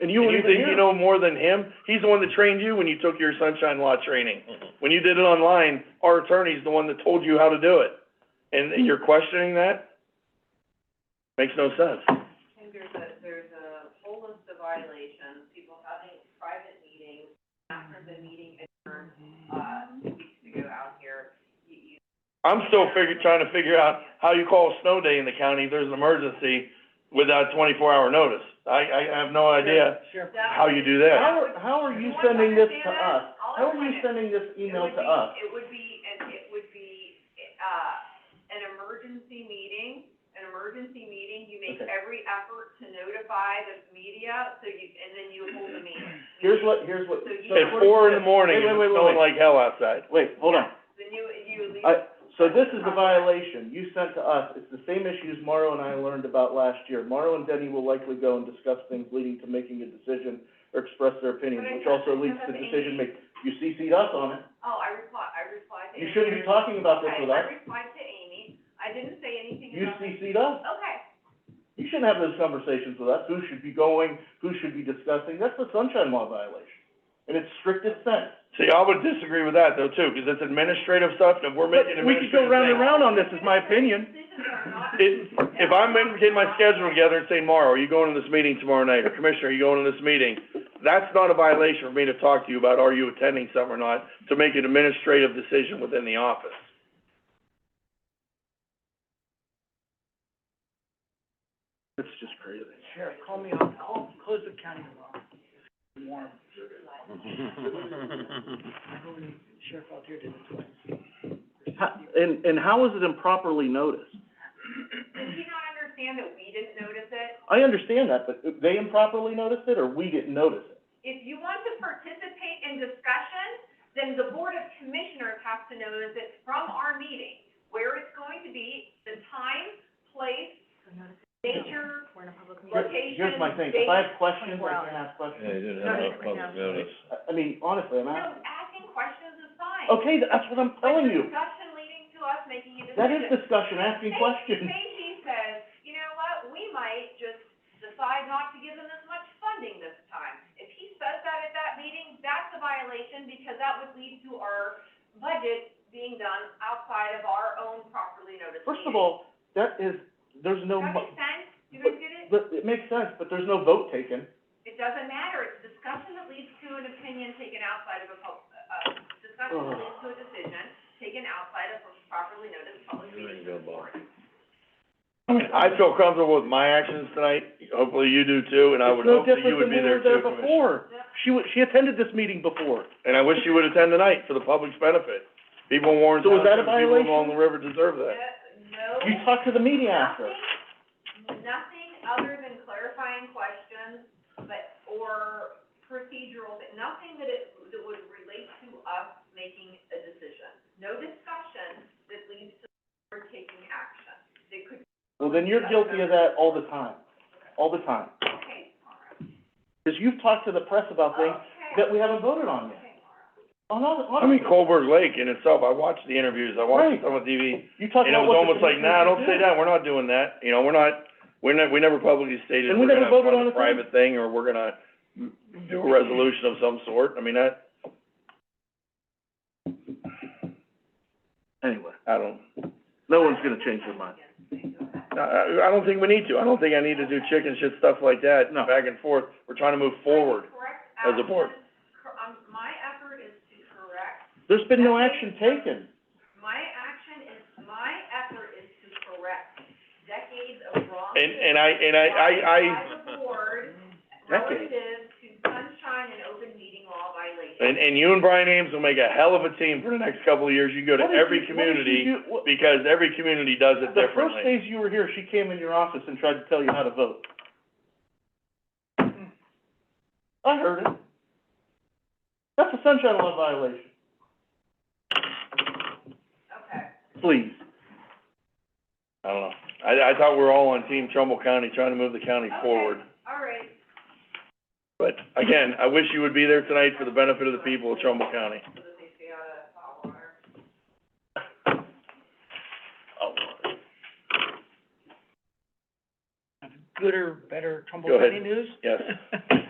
And you And wouldn't you think even you hear. know more than him? He's the one that trained you when you took your sunshine law training. Mm-hmm. When you did it online, our attorney's the one that told you how to do it. And and you're questioning that? Makes no sense. I think there's a, there's a whole list of violations, people having private meetings after the meeting adjourned, uh, two weeks ago out here. You, you, I'm still figure, trying to figure out how you call a snow day in the county if there's an emergency without twenty-four hour notice. I, I have no idea Sure. how you do that. How, are- how are you sending this to us? How are you sending this It email would be- to us? It would be, an it would be, uh, an emergency meeting, an emergency meeting, you make Okay. every effort to notify the media, so you, and then you hold the meeting. Here's what, here's what. So you- so At four in the morning, Wait, and wait, it's wait, wait, snowing wait. like hell outside. Wait, hold on. Then you, you leave. I- So this is the violation you sent to us. It's the same issues Morrow and I learned about last year. Morrow and Denny will likely go and discuss things leading to making a decision or express their opinions, But I which thought also they leads said that to they- decision making. You CC'd us on it. Oh, I reply, I replied to. Amy. You shouldn't be talking about this I- with us. I replied to Amy, I didn't say anything You about. CC'd us. Okay, You shouldn't have those conversations with us, who should be going, who should be discussing, that's the sunshine law violation, in its strictest sense. See, I would disagree with that though too, because it's administrative stuff, and if we're making But we could go administrative round and things. round on this, is my opinion. decisions are not. It, if I'm in- getting my schedule together and saying, Mauro, are you going to this meeting tomorrow night, or Commissioner, are you going to this meeting? That's not a violation for me to talk to you about, are you attending something or not, to make an administrative decision within the office. It's just crazy. Sheriff, call me up, call, close the county tomorrow. It's Warm. I go to Sheriff out here did it twice. How- And, and how is it improperly noticed? Did you not understand that we didn't notice it? I understand that, but they improperly noticed it, or we didn't notice it? If you want to participate in discussion, then the Board of Commissioners has to notice it from our meeting, where it's going to be, the time, place, nature, Here- location, Here's my thing, if I have questions, I can ask questions. I, I mean, honestly, I'm No, asking. asking questions is fine. Okay, that's what I'm telling you, But the discussion leading to us making a decision. that is discussion, asking Say- questions. Say he says, you know what, we might just decide not to give them as much funding this time. If he says that at that meeting, that's a violation because that would lead to our budget being done outside of our own properly noticed First of meeting. all, that is, there's no, Does that mo- make sense? You guys get it? but it makes sense, but there's no vote taken. It doesn't matter. It's discussion that leads to an opinion taken outside of a pub, uh, discussion that Ugh. leads to a decision taken outside of a properly noticed public meeting of the board. I feel comfortable with my actions tonight, hopefully you do too, and I would hope that you would be there too, It's no different than when we Commissioner. were there before. She wa- she attended this meeting before. And I wish you would attend tonight for the public's benefit. People in Warren So was that a Township, people violation? along the river deserve that. No. You talked to the media after. Nothing, nothing other than clarifying questions, but, or procedural, but nothing that it, that would relate to us making a decision. No discussion that leads to our taking action. They could, Well, then you're guilty of that all the time, all the time. okay, Mara, Because you've talked to the press about things okay, that we haven't voted on yet. okay, Mara. On all, the- on. I mean, Colbert Lake in itself, I watched the interviews, I watched it on the TV, You talked and it about was almost what the like, commissioners nah, don't should say do. that, we're not doing that, you know, we're not, we're not, we never publicly stated And we're we gonna never voted fund on a the thing. private thing, or we're gonna do a resolution of some sort, I mean, that, Anyway, I don't, no one's gonna change their mind. I, I don't think we need to, I don't think I need to do chicken shit stuff like that, No. back and forth, we're trying to move forward. Correct as a board. action, cor- um, my effort is to correct There's been no action taken. My action is, my effort is to correct decades of wrong. And, and I, and I, I, I, By the board, Decades. relative to sunshine and open meeting and, law violations. and you and Brian Ames will make a hell of a team for the next couple of years, you go to What did you- every what did you community, do- what- because every community does it The first differently. days you were here, she came in your office and tried to tell you how to vote. I heard it. That's a sunshine law violation. Okay, Please. I don't know, I, I thought we were all on team Trumbull County, trying to move the county Okay. forward. all right. But again, I wish you would be there tonight for the benefit of the people of Trumbull County. So that they stay out of hot water. Gooder, better Trumbull Go ahead. County news? Yes.